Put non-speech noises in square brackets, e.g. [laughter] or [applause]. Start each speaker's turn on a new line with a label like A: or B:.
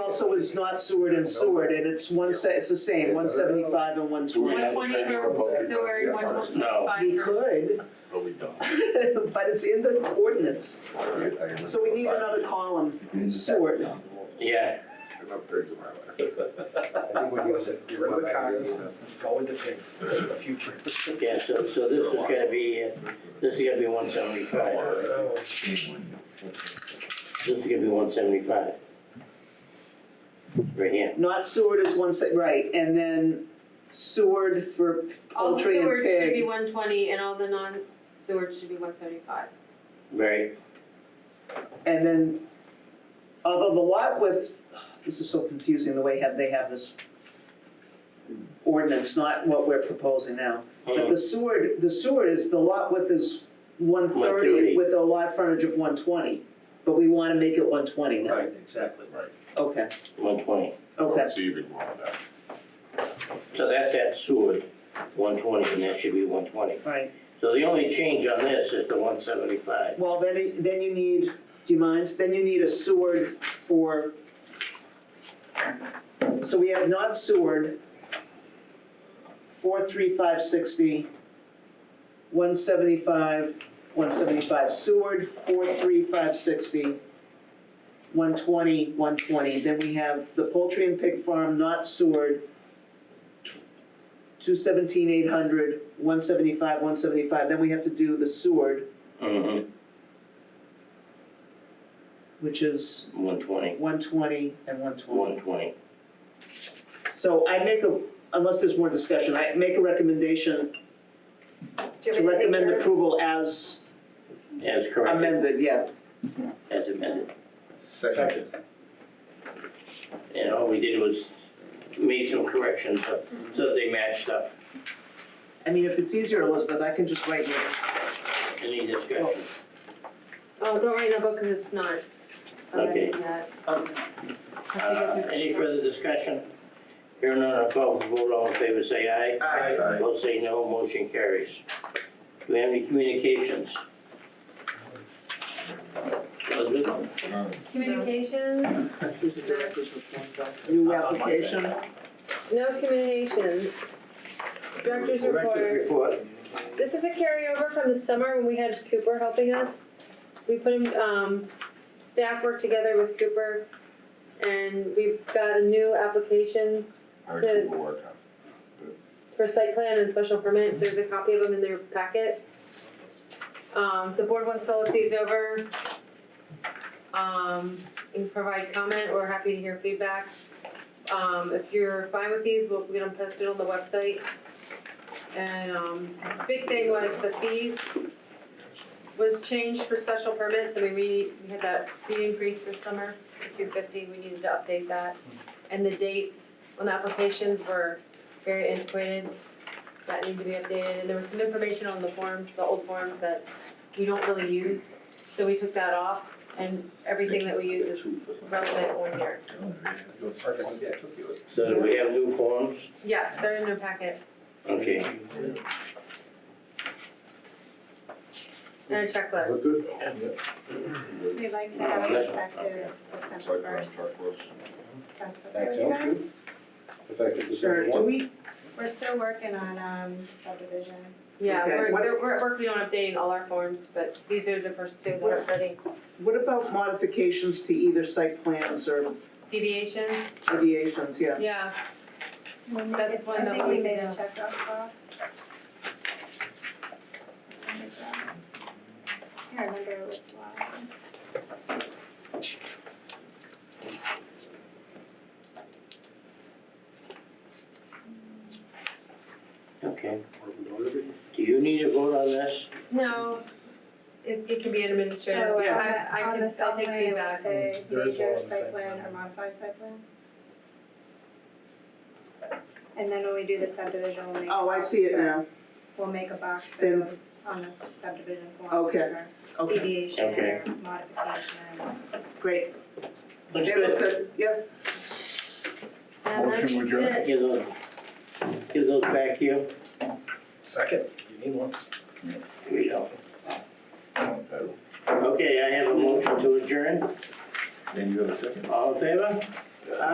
A: also is not Seward and Seward, and it's one se, it's the same, one seventy-five and one
B: Do we
A: twenty.
B: have to
C: 120
B: change
C: for
B: the vote?
C: Missouri, 125
A: We
C: for.
A: could,
B: But we don't.
A: [laughs] but it's in the ordinance,
B: Alright, I
A: so we need another column, Seward.
D: Yeah,
B: I'm upgrades of our letter.
E: I think we need to get rid of the cars, go with the pigs, that's the future.
D: yeah, so, so this is gonna be, uh, this is gonna be one seventy-five, this is gonna be one seventy-five. Right here,
A: Not Seward is one se, right, and then Seward for
C: All the
A: poultry and
C: sewage should be
A: pig.
C: one twenty and all the non-sewage should be one seventy-five.
D: right,
A: And then, although the lot with, this is so confusing, the way have, they have this ordinance, not what we're proposing now. But
D: Mhm.
A: the Seward, the Seward is, the lot width is one
D: 130.
A: thirty with a lot frontage of one twenty, but we wanna make it one twenty now.
E: Right, exactly.
A: Okay,
D: one twenty.
A: okay,
B: So you can roll that.
D: So that's at Seward, one twenty, and that should be one twenty.
A: all right.
D: So the only change on this is the one seventy-five.
A: Well, then, it- then you need, do you mind? Then you need a Seward for, so we have not Seward, four, three, five, sixty, one seventy-five, one seventy-five, Seward, four, three, five, sixty, one twenty, one twenty, then we have the poultry and pig farm, not Seward, two seventeen, eight hundred, one seventy-five, one seventy-five, then we have to do the Seward,
D: Mm-hmm.
A: which is
D: One twenty,
A: one twenty and one twenty.
D: one twenty.
A: So I make a, unless there's more discussion, I make a recommendation to recommend approval as
D: As corrected,
A: amended, yeah.
D: as amended.
E: Second.
D: And all we did was made some corrections up, so that they matched up.
A: I mean, if it's easier, Elizabeth, I can just write here.
D: Any discussion?
C: Oh, don't write in a book because it's not.
D: Okay.
A: Um,
D: Uh, Any further discussion? Here none, I'll call for vote, all in favor, say aye.
A: I-
D: Opposed, say no, motion carries. Do we have any communications? Elizabeth?
C: Communications,
A: New application,
C: no communications. Director's
D: Director's
C: report.
D: report.
C: This is a carryover from the summer when we had Cooper helping us. We put him, um, staff worked together with Cooper and we've got a new applications
B: Our
C: Did-
B: Google work on.
C: for site plan and special permit, there's a copy of them in their packet. Um, the board wants to look these over. Um, and provide comment, we're happy to hear feedback. Um, if you're fine with these, we'll get them posted on the website. And, um, big thing was the fees was changed for special permits, I mean, we, we had that fee increase this summer, two fifty, we needed to update that. And the dates on the applications were very antiquated, that need to be updated, and there was some information on the forms, the old forms that we don't really use, so we took that off, and everything that we use is relevant on here.
E: Perfect.
D: So do we have new forms?
C: Yes, they're in your packet,
D: Okay,
C: and a checklist.
F: We'd like to
D: No,
F: have it
D: that's-
F: effective December
B: Site plan,
F: first.
B: truck list.
F: That's okay
G: That
F: with you
G: sounds
F: guys?
G: good. Effective
A: sure,
G: December
A: do
G: one.
A: we,
F: We're still working on, um, subdivision.
C: Yeah,
A: Okay,
C: we're,
A: what-
C: we're, we're working on updating all our forms, but these are the first two that are ready.
A: what about modifications to either site plans or
C: Deviations,
A: deviations, yeah?
C: yeah, That's one that
F: I think
C: we
F: we made a
C: need to-
F: checkoff box. I can't remember it was one.
D: okay. Do you need a vote on this?
C: no, it, it can be an administrative,
F: So on
C: I,
F: the,
C: I
F: on the
C: can, I'll
F: site
C: take
F: plan, it will
C: feedback.
F: say
E: There is one
F: major
E: on the
F: site
E: site
F: plan
E: plan.
F: or modified site plan. And then when we do the subdivision, we'll make. a
A: Oh, I
F: box
A: see it
F: for-
A: now,
F: We'll make a box for
A: Then-
F: those on the subdivision forms.
A: Okay.
F: for
A: okay,
F: Deviation
D: Okay.
F: or modification.
A: great.
D: Looks
A: They look
D: good.
A: good, yeah,
C: And that's
G: Motion adjourned.
C: it.
D: Give those, give those back to you.
E: Second, you need one.
D: Here you go.
B: Okay.
D: Okay, I have a motion to adjourn.
B: Then you have a second.
D: All in favor?